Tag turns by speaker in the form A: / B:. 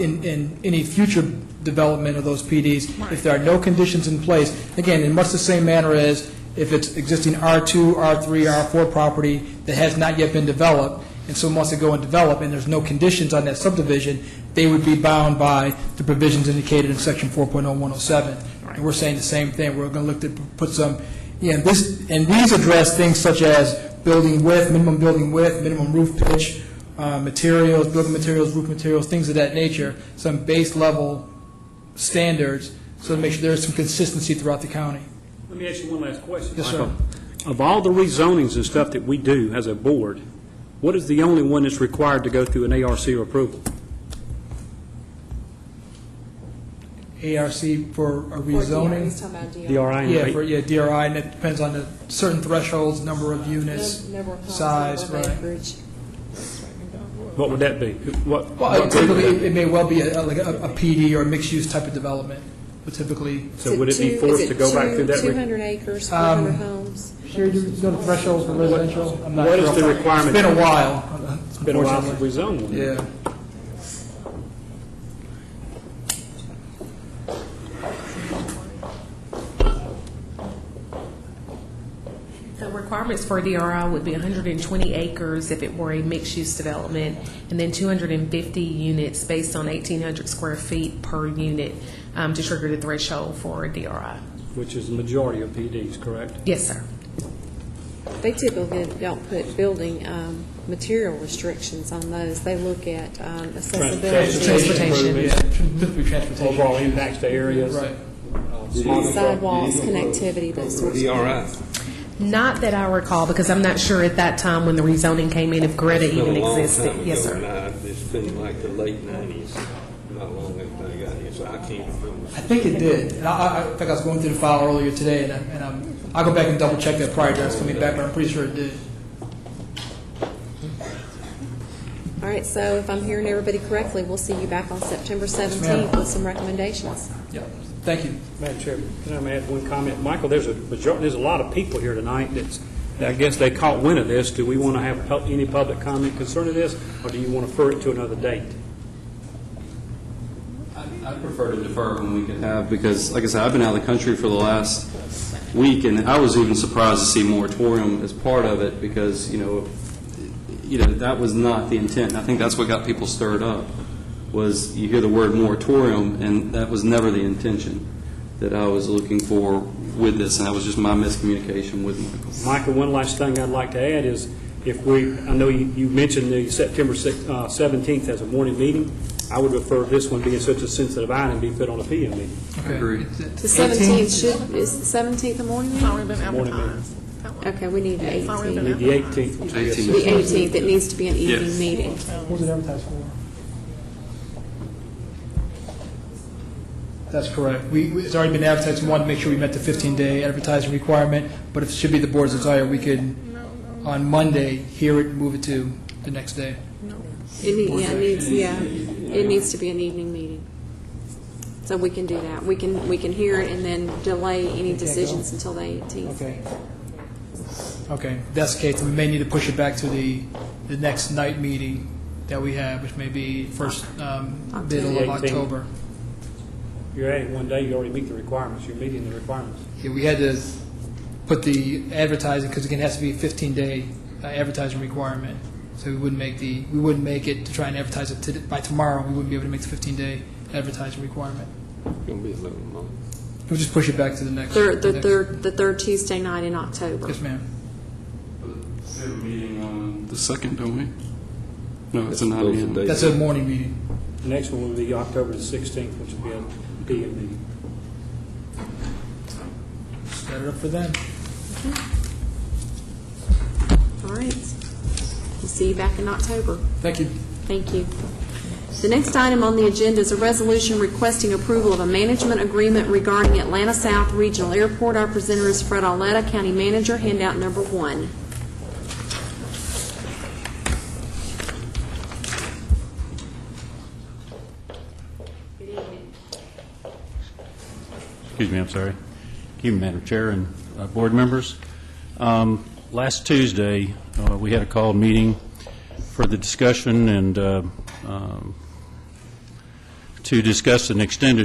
A: in, in any future development of those PDs, if there are no conditions in place, again, in much the same manner as if it's existing R2, R3, R4 property that has not yet been developed, and someone wants to go and develop, and there's no conditions on that subdivision, they would be bound by the provisions indicated in section 4.0107. And we're saying the same thing, we're going to look to put some, yeah, this, and these address things such as building width, minimum building width, minimum roof pitch, uh, materials, building materials, roof materials, things of that nature, some base level standards, so to make sure there's some consistency throughout the county.
B: Let me ask you one last question.
A: Yes, sir.
B: Michael. Of all the rezonings and stuff that we do as a board, what is the only one that's required to go through an ARC approval?
A: ARC for E? a
C: Or DRI, he's
A: rezoning,
C: talking about DRI.
B: DRI,
A: yeah, for,
B: right?
A: yeah, DRI, and it depends on the certain thresholds, number of units,
C: No- no repulse,
A: size,
C: no
A: right.
C: acreage.
B: What would that be? What-
A: Well,
B: what group
A: typically,
B: would that-
A: it may well be a- like a a PD or a mixed-use type of development, but typically,
B: So would it be
C: two-
B: forced
C: is
B: to go back
C: two-
B: through that? re-
C: 200 acres,
A: Um,
C: 400 homes.
A: Sure, you know the thresholds for residential? I'm not
B: What is
A: sure.
B: the requirement?
A: It's been a while.
B: It's been a while since we zoned one.
A: Yeah.
D: The requirements for a DRI would be 120 acres if it were a mixed-use development, and then 250 units based on 1,800 square feet per unit um, to trigger the threshold for a DRI.
B: Which is the majority of PDs, correct?
D: Yes, sir.
C: They typically don't put building um, material restrictions on those. They look at um, accessibility,
D: Transportation.
A: Yeah, typically transportation.
B: Overall impacts to areas?
A: Right.
C: sidewalks, connectivity, those sorts of things.
D: Not that I recall, because I'm not sure at that time when the rezoning came in if Greta even
E: Been a long
D: existed.
E: time ago,
D: Yes, sir.
E: and I- It's been like the late nineties, not long after I got here, so I can't remember.
A: I think it did. And I, I- I think I was going through the file earlier today, and I- and I'm, I'll go back and double check that prior to us coming back, but I'm pretty sure it did.
C: All right, so if I'm hearing everybody correctly, we'll see you back on September
A: ma'am.
C: 17th with some recommendations.
A: Yeah. Thank you.
B: Madam Chairman, can I add one comment? Michael, there's a, major- there's a lot of people here tonight that's, that I guess they caught wind of this. Do we want to have pub- any public comment concerning this, or do you want to refer it to another date?
F: I- I prefer to defer when we can have, Uh, because, like I said, I've been out of the country for the last week, and I was even surprised to see moratorium as part of it, because, you know, you know, that was not the intent, and I think that's what got people stirred up, was you hear the word moratorium, and that was never the intention that I was looking for with this, and that was just my miscommunication with Michael.
B: Michael, one last thing I'd like to add is, if we, I know you you mentioned the September six- uh, 17th as a morning meeting, I would refer this one being such a sensitive item, be put on a PM meeting.
A: Okay.
F: Agreed.
C: The 17th should, is the 17th a morning meeting?
B: Morning meeting.
C: Okay, we need an 18th.
B: The 18th, which would be a
F: 18th.
C: The 18th, it needs to be an evening
F: Yes.
C: meeting.
A: What was it advertised for? That's correct. We, we- it's already been advertised, we wanted to make sure we met the 15-day advertising requirement, but if it should be the board's desire, we could, on Monday, hear it, and move it to the next day.
C: It need, yeah, it needs, yeah, it needs to be an evening meeting. So we can do that. We can, we can hear it and then delay any decisions until the 18th.
A: Okay. Okay, if that's the case, then we may need to push it back to the, the next night meeting that we have, which may be first, um, middle of
B: October.
A: October.
B: You're adding one day, you already meet the requirements, you're meeting the requirements.
A: Yeah, we had to put the advertising, because again, it has to be a 15-day uh, advertising requirement. So we wouldn't make the, we wouldn't make it to try and advertise it to- by tomorrow, we wouldn't be able to make the 15-day advertising requirement.
E: It's gonna be a little long.
A: We'll just push it back to the next.
C: Third, the
A: next-
C: third, the third Tuesday night in October.
A: Yes, ma'am.
F: We have a meeting on... The second, don't we? No, it's a
E: Those are
F: 9 a.m.
E: dates.
A: That's a morning meeting.
B: The next one will be October the 16th, which will be a PM meeting.
A: Set it up for then.
C: All right. We'll see you back in October.
A: Thank you.
C: Thank you. The next item on the agenda is a resolution requesting approval of a management agreement regarding Atlanta South Regional Airport. Our presenter is Fred Arletta, County Manager, handout number one.
G: Excuse me, I'm sorry. Thank you, Madam Chair and uh, board members. Um, Last Tuesday, uh, we had a called meeting for the discussion and uh, um, to discuss an extended